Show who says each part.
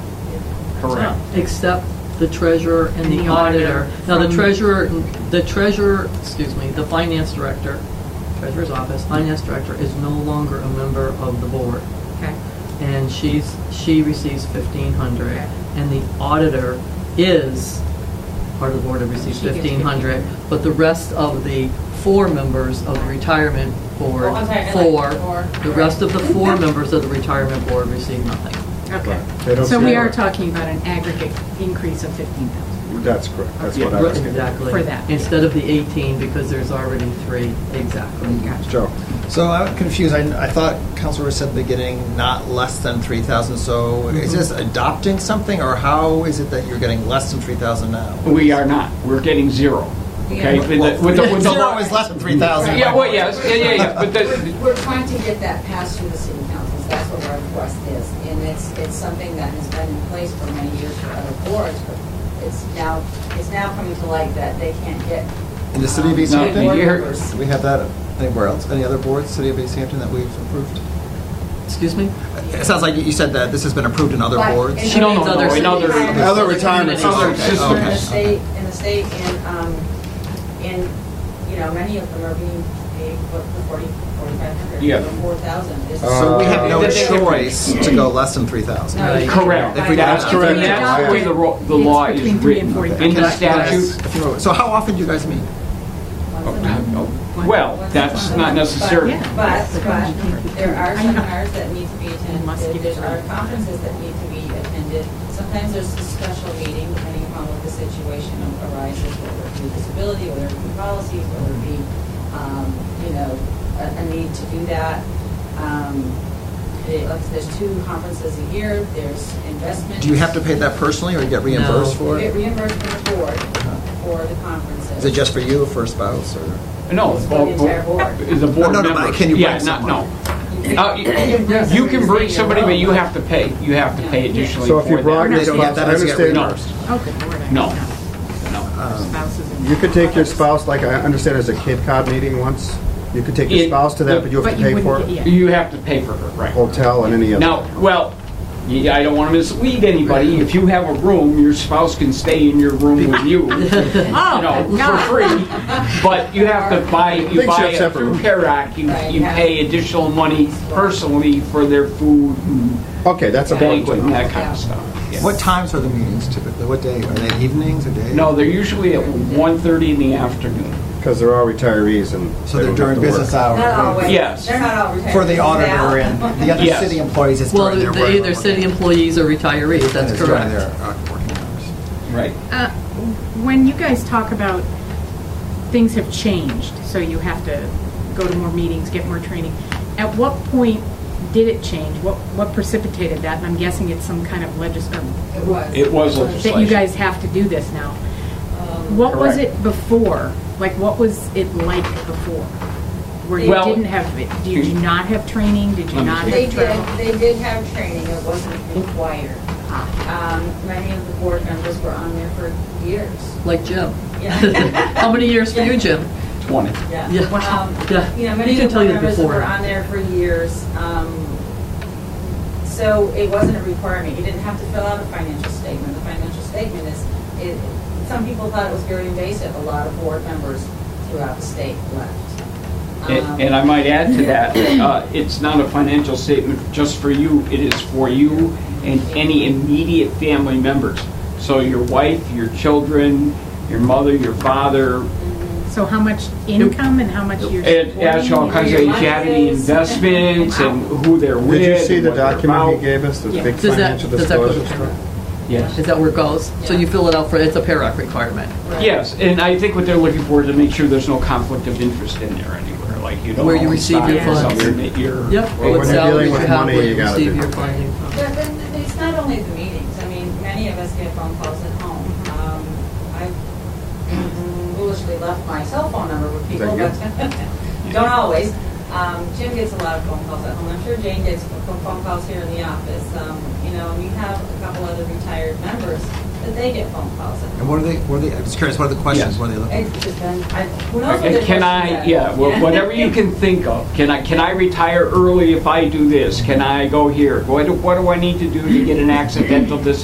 Speaker 1: Correct.
Speaker 2: Except the treasurer and the auditor. Now, the
Speaker 3: from-
Speaker 2: treasurer, the treasurer, excuse me, the finance director, treasurer's office, finance director is no longer a member of the board.
Speaker 3: Okay,
Speaker 2: And she's, she receives fifteen hundred.
Speaker 3: Okay.
Speaker 2: And the auditor is part of the board and receives
Speaker 3: She gets
Speaker 2: fifteen hundred. But the rest of the four members of the retirement board,
Speaker 3: Oh, I'm sorry, I like
Speaker 2: four,
Speaker 3: four.
Speaker 2: the rest of the four members of the retirement board receive nothing.
Speaker 1: Right. They
Speaker 3: okay.
Speaker 1: don't
Speaker 3: So we
Speaker 1: care.
Speaker 3: are talking about an aggregate increase of 15,000.
Speaker 1: That's correct, that's
Speaker 2: Yeah,
Speaker 1: what I
Speaker 2: right,
Speaker 1: was getting at.
Speaker 2: Exactly.
Speaker 3: For that.
Speaker 2: Instead of the 18, because there's already three, exactly.
Speaker 3: Gotcha.
Speaker 1: Joe,
Speaker 4: So I'm confused. I, I thought Councilor said at the beginning, not less than three thousand. So
Speaker 5: Mm-hmm.
Speaker 4: is this adopting something, or how is it that you're getting less than three thousand now?
Speaker 5: We are not. We're getting zero. Okay?
Speaker 3: Yeah.
Speaker 5: With the- with the- with the-
Speaker 4: Zero is less than three thousand.
Speaker 5: Yeah, well, yes, yeah, yeah, yeah, but the,
Speaker 6: We're we're trying to get that passed through the city councils, that's what our request is. And it's, it's something that has been in place for many years for other boards, but it's now, it's now coming to light that they can't get.
Speaker 4: In the city of
Speaker 6: um,
Speaker 4: East
Speaker 5: No,
Speaker 4: Hampton,
Speaker 6: board
Speaker 5: you hear-
Speaker 6: members.
Speaker 4: Do we have that anywhere else? Any other boards, city of East Hampton, that we've approved?
Speaker 2: Excuse me?
Speaker 4: It sounds like you said that this has been approved in other
Speaker 6: But
Speaker 4: boards.
Speaker 6: in
Speaker 5: She don't
Speaker 6: other
Speaker 5: know,
Speaker 6: cities-
Speaker 5: in other-
Speaker 1: Other retirement
Speaker 6: communities,
Speaker 5: systems.
Speaker 6: In the
Speaker 4: Okay,
Speaker 6: state, in the state, and, um, and, you know, many of them are being paid, what, the forty, forty-five hundred?
Speaker 5: Yeah.
Speaker 6: Four thousand.
Speaker 4: So we have no
Speaker 5: Uh,
Speaker 4: choice to go less than three thousand.
Speaker 2: Right.
Speaker 5: correct.
Speaker 4: If we
Speaker 5: That's
Speaker 4: adopt-
Speaker 5: correct.
Speaker 3: If we
Speaker 5: That's the way the ro- the
Speaker 3: adopt it,
Speaker 5: law
Speaker 3: it's
Speaker 5: is
Speaker 3: between three and
Speaker 5: written.
Speaker 3: four
Speaker 5: In the
Speaker 3: thousand.
Speaker 5: statute.
Speaker 4: So how often do you guys meet?
Speaker 5: Well, that's not necessary.
Speaker 3: Yeah.
Speaker 6: But,
Speaker 3: That's the
Speaker 6: but
Speaker 3: conjugate verb.
Speaker 6: there are
Speaker 3: I know.
Speaker 6: seminars that need to be
Speaker 3: must
Speaker 6: attended,
Speaker 3: give it
Speaker 6: there are
Speaker 3: to her.
Speaker 6: conferences that need to be attended. Sometimes there's a special meeting depending upon what the situation arises, whether it be disability, whether it be policies, whether it be, um, you know, a, a need to do that. Um, the- like, There's two conferences a year, there's investment.
Speaker 4: Do you have to pay that personally, or you get reimbursed for
Speaker 6: You get
Speaker 4: it?
Speaker 6: reimbursed from the board for the conferences.
Speaker 4: Is it just for you, for a spouse, or?
Speaker 5: No.
Speaker 6: It's for the entire board.
Speaker 5: The board
Speaker 4: No, no, no,
Speaker 5: member.
Speaker 4: but can you bring
Speaker 5: Yeah, not-
Speaker 4: someone?
Speaker 5: No. Uh, y- You can bring somebody, but you have to pay. You have to pay additionally
Speaker 1: so if you
Speaker 5: for
Speaker 1: brought
Speaker 5: that.
Speaker 1: your
Speaker 4: They don't
Speaker 1: spouse,
Speaker 4: get
Speaker 1: I
Speaker 4: that as a
Speaker 1: understand.
Speaker 5: No.
Speaker 3: Oh, good lord. I
Speaker 5: No.
Speaker 3: don't know.
Speaker 5: No.
Speaker 3: Um, Spouses and-
Speaker 1: You could take your spouse, like I understand there's a Cape Cod meeting once, you could take your
Speaker 5: It-
Speaker 1: spouse to that, but you have
Speaker 3: But
Speaker 1: to
Speaker 3: you
Speaker 1: pay
Speaker 3: wouldn't
Speaker 1: for
Speaker 3: get-
Speaker 1: it.
Speaker 3: yeah.
Speaker 5: You have to pay for her, right.
Speaker 1: Hotel and any other.
Speaker 5: Now, well, y- I don't want to mislead anybody. If you have a room, your spouse can stay in your room with you, you know, for free. But you have to buy, you
Speaker 1: Big
Speaker 5: buy
Speaker 1: chef's
Speaker 5: it
Speaker 1: separate
Speaker 5: through
Speaker 1: room.
Speaker 5: Carac, you,
Speaker 6: Right,
Speaker 5: you
Speaker 6: yeah.
Speaker 5: pay additional money personally for their food and
Speaker 1: Okay, that's a
Speaker 5: banquet
Speaker 1: banquet.
Speaker 5: and that kind of stuff. Yeah.
Speaker 4: What times are the meetings typically? What day? Are they evenings or days?
Speaker 5: No, they're usually at 1:30 in the afternoon.
Speaker 1: Because they're all retirees and.
Speaker 4: So
Speaker 1: they
Speaker 4: they're
Speaker 1: don't have
Speaker 4: during
Speaker 1: to work.
Speaker 4: business
Speaker 6: Not
Speaker 4: hours?
Speaker 6: always.
Speaker 5: Yes.
Speaker 6: They're not all retired.
Speaker 4: For the
Speaker 6: Now-
Speaker 4: auditor and the other
Speaker 5: Yes.
Speaker 4: city employees, it's
Speaker 2: Well,
Speaker 4: during their.
Speaker 2: they're either
Speaker 4: working-
Speaker 2: city employees or retirees, that's
Speaker 4: it's during their,
Speaker 2: correct.
Speaker 4: uh, working hours.
Speaker 5: Right.
Speaker 3: Uh, When you guys talk about things have changed, so you have to go to more meetings, get more training, at what point did it change? What, what precipitated that? And I'm guessing it's some kind of legis, um,
Speaker 6: It was.
Speaker 5: It was
Speaker 3: that you
Speaker 5: legislation.
Speaker 3: guys have to do this now.
Speaker 6: Um,
Speaker 3: What was
Speaker 5: Correct.
Speaker 3: it before? Like, what was it like before? Where you
Speaker 5: Well-
Speaker 3: didn't have, did you not have training? Did you
Speaker 5: Let me
Speaker 3: not
Speaker 6: They
Speaker 3: have travel?
Speaker 6: did, they did have training, it wasn't required. Um, Many of the board members were on there for years.
Speaker 2: Like Jim.
Speaker 6: Yeah.
Speaker 2: How many years for you, Jim?
Speaker 5: 20.
Speaker 2: Yeah.
Speaker 6: Um,
Speaker 2: Yeah.
Speaker 6: You know,
Speaker 2: He
Speaker 6: many
Speaker 2: can
Speaker 6: of the
Speaker 2: tell you
Speaker 6: board members
Speaker 2: before.
Speaker 6: were on there for years. um, So it wasn't a requirement, you didn't have to fill out a financial statement. The financial statement is, it- some people thought it was very invasive, a lot of board members throughout the state left. Um,
Speaker 5: And and I might add to that, uh, it's not a financial statement just for you, it is for you and any immediate family members. So your wife, your children, your mother, your father,
Speaker 3: So how much income and how much you're
Speaker 5: and ask all kinds of, if you have any investments and who they're with.
Speaker 1: Did you see
Speaker 5: and
Speaker 1: the
Speaker 5: what they're
Speaker 1: document
Speaker 5: about.
Speaker 1: he gave us, the
Speaker 3: Yeah.
Speaker 1: big
Speaker 2: Does that-
Speaker 1: financial
Speaker 2: does that go
Speaker 1: disclosure?
Speaker 2: to
Speaker 1: stuff?
Speaker 5: Yes.
Speaker 2: Is that where it goes? So
Speaker 6: Yeah.
Speaker 2: you fill it out for, it's a PERAC requirement.
Speaker 6: right.
Speaker 5: Yes, and I think what they're looking for is to make sure there's no conflict of interest in there anywhere, like you don't.
Speaker 2: Where you
Speaker 5: own
Speaker 2: receive your
Speaker 5: stock in
Speaker 2: funds.
Speaker 5: something that you're-
Speaker 2: Yep. uh,
Speaker 1: Well,
Speaker 2: What
Speaker 1: when you're
Speaker 2: salaries
Speaker 1: dealing with
Speaker 2: you have,
Speaker 1: money,
Speaker 2: what
Speaker 1: you gotta
Speaker 2: receive
Speaker 1: do
Speaker 2: your
Speaker 1: that.
Speaker 2: funding from.
Speaker 6: But then, it's not only the meetings, I mean, many of us get phone calls at home. Um, I foolishly left my cell phone number with people,
Speaker 1: Is
Speaker 6: but don't always. Um, Jim gets a lot of phone calls at home, I'm sure Jane gets phone phone calls here in the office. Um, You know, we have a couple other retired members, but they get phone calls at home.
Speaker 4: And what are they, what are they, I'm just curious, what are the questions?
Speaker 5: Yes.
Speaker 4: What are they looking?
Speaker 6: It just then, I, who knows what
Speaker 5: And
Speaker 6: their
Speaker 5: Can
Speaker 6: questions are.
Speaker 5: I, yeah, wha- whatever you can think of, can I, can I retire early if I do this? Can I go here? What do, what do I need to do to get an accidental disability?